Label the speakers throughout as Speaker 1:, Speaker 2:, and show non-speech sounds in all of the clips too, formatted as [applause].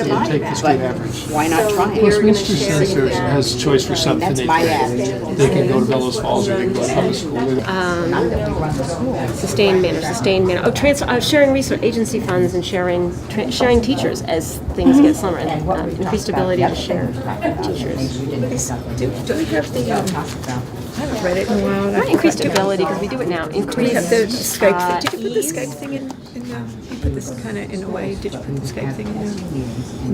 Speaker 1: and take the state average.
Speaker 2: Why not try it?
Speaker 1: Plus, Westminster says there's, has a choice for something.
Speaker 2: That's
Speaker 1: They
Speaker 2: my
Speaker 1: can-
Speaker 2: app.
Speaker 1: They can go to Bellows Falls or they can go to public school.
Speaker 3: Sustained manner, sustained manner. Oh, trans, uh, sharing resource, agency funds and sharing, tra- sharing teachers as things get slimmer. and uh, Increased ability to share teachers.
Speaker 4: Do we have the, um, I haven't read it in a while.
Speaker 3: Not increased ability, because we do it now,
Speaker 4: Do we have
Speaker 3: increased.
Speaker 4: the Skype
Speaker 3: uh,
Speaker 4: thing? Did you put the Skype thing in, in the, you put this kind of in a way, did you put the Skype thing in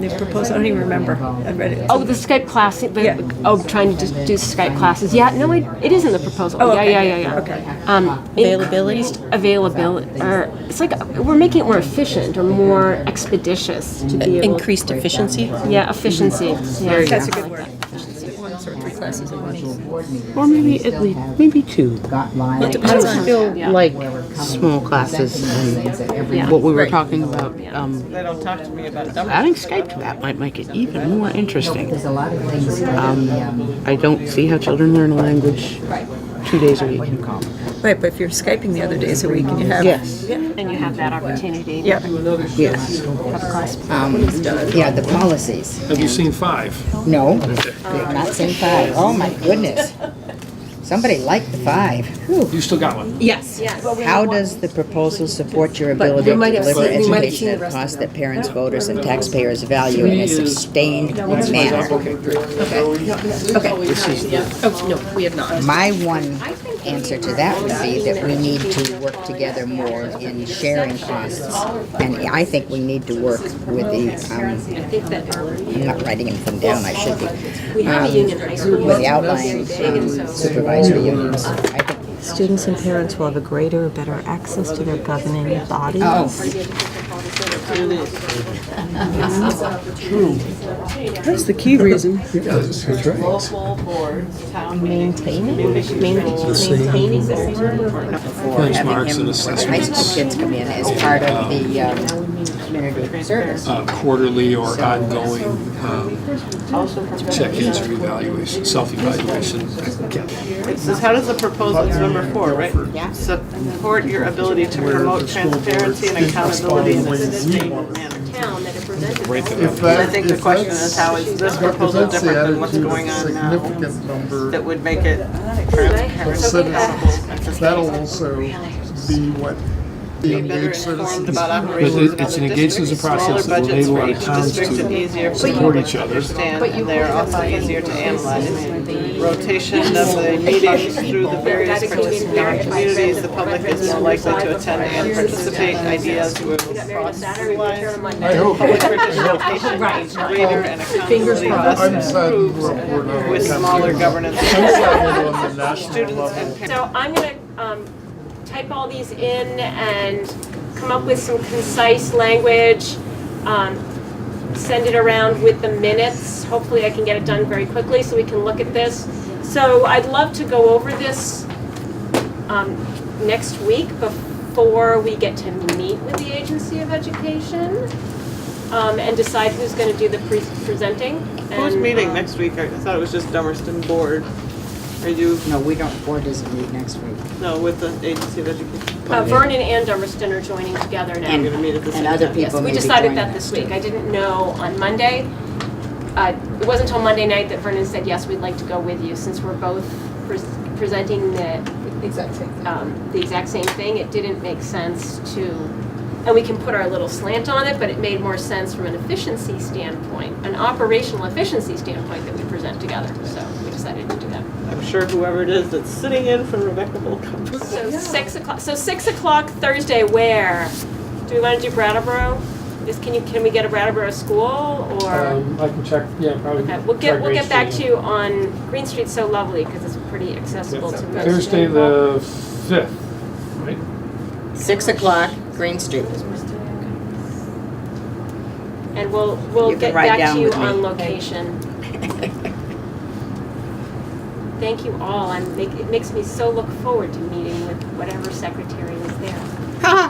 Speaker 4: the, in the proposal? I don't even remember. I read it.
Speaker 3: Oh, the Skype class,
Speaker 4: Yeah.
Speaker 3: the, oh, trying to do Skype classes. Yeah, no, it, it is in the proposal.
Speaker 4: Oh,
Speaker 3: Yeah,
Speaker 4: okay.
Speaker 3: yeah, yeah, yeah.
Speaker 4: Okay.
Speaker 3: Um, increased availability, or, it's like, uh, we're making it more efficient or more expeditious to be able.
Speaker 5: Uh, Increased efficiency?
Speaker 3: Yeah, efficiency. Yeah.
Speaker 4: That's a good word. Is it One or three classes at once.
Speaker 5: Or maybe at least, maybe two.
Speaker 6: Well,
Speaker 5: I don't feel
Speaker 3: Yeah.
Speaker 5: like small classes and what we were talking about. um,
Speaker 7: They don't talk to me about dumb
Speaker 5: Adding Skype to that might make it even more interesting.
Speaker 6: There's a lot of things in the, um,
Speaker 5: I don't see how children learn a language two days a week.
Speaker 4: Right, but if you're Skyping the other days a week and you have.
Speaker 5: Yes,
Speaker 3: And you have that opportunity.
Speaker 4: Yeah.
Speaker 6: yes. Um, Yeah, the policies.
Speaker 1: Have you seen five?
Speaker 6: No,
Speaker 5: Um,
Speaker 6: they're not saying five. Oh, my goodness. Somebody liked the five. Whew.
Speaker 1: You still got one?
Speaker 6: How does the proposal support your ability to deliver education at a cost that parents, voters, and taxpayers value in a sustained manner?
Speaker 1: Okay, great.
Speaker 6: My one answer to that would be that we need to work together more in sharing costs. And I think we need to work with the, um, I'm not writing anything down, I should be. We have a union high school. With the outlying um, supervisory unions. I think-
Speaker 8: Students and parents will have a greater or better access to their governing body.
Speaker 6: Oh,
Speaker 9: That's the key reason.
Speaker 1: That's right.
Speaker 3: Maintaining the student.
Speaker 1: Benchmarks and
Speaker 6: high
Speaker 1: assessments,
Speaker 6: school kids come in as part of the um, community service.
Speaker 1: uh, quarterly or ongoing um, check-ins or evaluation, self-evaluation.
Speaker 7: It says, how does the proposal, it's number four, right? Support your ability to promote transparency and accountability in a sustainable manner.
Speaker 3: Town that are presented.
Speaker 1: Right there.
Speaker 10: If that-
Speaker 7: I think the
Speaker 10: if
Speaker 7: question
Speaker 10: that's-
Speaker 7: is, how is this
Speaker 10: if
Speaker 7: proposal
Speaker 10: that's the
Speaker 7: different than what's
Speaker 10: attitude of
Speaker 7: going on now?
Speaker 10: Significant
Speaker 7: That
Speaker 10: number,
Speaker 7: would make it
Speaker 10: but
Speaker 7: transparent.
Speaker 10: said it- that'll also be what the engaged
Speaker 7: Informed
Speaker 10: citizens.
Speaker 7: about
Speaker 1: But
Speaker 7: operations
Speaker 1: it-
Speaker 7: of
Speaker 1: it's an
Speaker 7: other
Speaker 1: engagement as a
Speaker 7: districts, smaller
Speaker 1: process that will
Speaker 7: budgets
Speaker 1: enable
Speaker 7: for
Speaker 1: our
Speaker 7: each
Speaker 1: towns
Speaker 7: district and easier
Speaker 1: to
Speaker 7: for
Speaker 1: support
Speaker 7: people
Speaker 1: each
Speaker 7: to
Speaker 1: other.
Speaker 7: understand, and they're also easier to analyze. Rotation of the meetings through the various participating communities, the public is more likely to attend and participate, ideas will cross lines.
Speaker 10: I hope.
Speaker 7: Public participation is greater and accountability
Speaker 10: I'm
Speaker 7: thus
Speaker 10: sad we're,
Speaker 7: improves
Speaker 10: we're not.
Speaker 7: with
Speaker 1: [laughs]
Speaker 7: smaller governance.
Speaker 10: I'm sad we're on the national
Speaker 7: Students
Speaker 10: level.
Speaker 7: and parents.
Speaker 3: So I'm gonna um, type all these in and come up with some concise language, um, send it around with the minutes. Hopefully I can get it done very quickly so we can look at this. So I'd love to go over this um, next week before we get to meet with the Agency of Education um, and decide who's gonna do the pre- presenting.
Speaker 7: Who's
Speaker 3: and,
Speaker 7: meeting
Speaker 3: um,
Speaker 7: next week? I thought it was just Dummerston Board. Are you,
Speaker 6: No, we don't, board doesn't meet next week.
Speaker 7: no, with the Agency of Education?
Speaker 3: Uh, Vernon and Dummerston are joining together now.
Speaker 7: You're gonna meet at the
Speaker 6: And
Speaker 7: same
Speaker 6: other
Speaker 7: time?
Speaker 6: people
Speaker 3: Yes,
Speaker 6: may
Speaker 3: we
Speaker 6: be
Speaker 3: decided
Speaker 6: joining
Speaker 3: that
Speaker 6: us.
Speaker 3: this week. I didn't know on Monday. Uh, It wasn't until Monday night that Vernon said, yes, we'd like to go with you, since we're both pres- presenting the. Exact same thing. The exact same thing. It didn't make sense to, and we can put our little slant on it, but it made more sense from an efficiency standpoint, an operational efficiency standpoint that we present together. So we decided to do that.
Speaker 7: I'm sure whoever it is that's sitting in for Rebecca will come.
Speaker 3: So six o'clock, so six o'clock Thursday, where? Do we want to do Brattleboro? Is, can you, can we get a Brattleboro school or?
Speaker 1: Um, I can check, yeah, probably.
Speaker 3: Okay, we'll get, we'll get back to you on, Green Street's so lovely because it's pretty accessible to most.
Speaker 1: Thursday, the fifth, right?
Speaker 2: Six o'clock, Green Street.
Speaker 3: And we'll, we'll
Speaker 2: You can
Speaker 3: get
Speaker 2: ride
Speaker 3: back
Speaker 2: down
Speaker 3: to you
Speaker 2: with me.
Speaker 3: on location. [laughs] Thank you all. I'm, make- it makes me so look forward to meeting with whatever secretary
Speaker 2: [laughs]
Speaker 3: is there.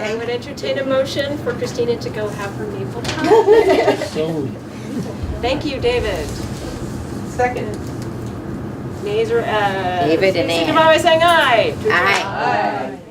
Speaker 3: I would entertain a motion for Christina to go have
Speaker 2: [laughs]
Speaker 3: her maple pie.
Speaker 1: So,
Speaker 3: Thank you, David.
Speaker 7: Second.
Speaker 3: Nays or ayes?
Speaker 2: David and
Speaker 3: Signify
Speaker 2: Ann.
Speaker 3: by saying aye.
Speaker 2: Aye.
Speaker 3: Aye.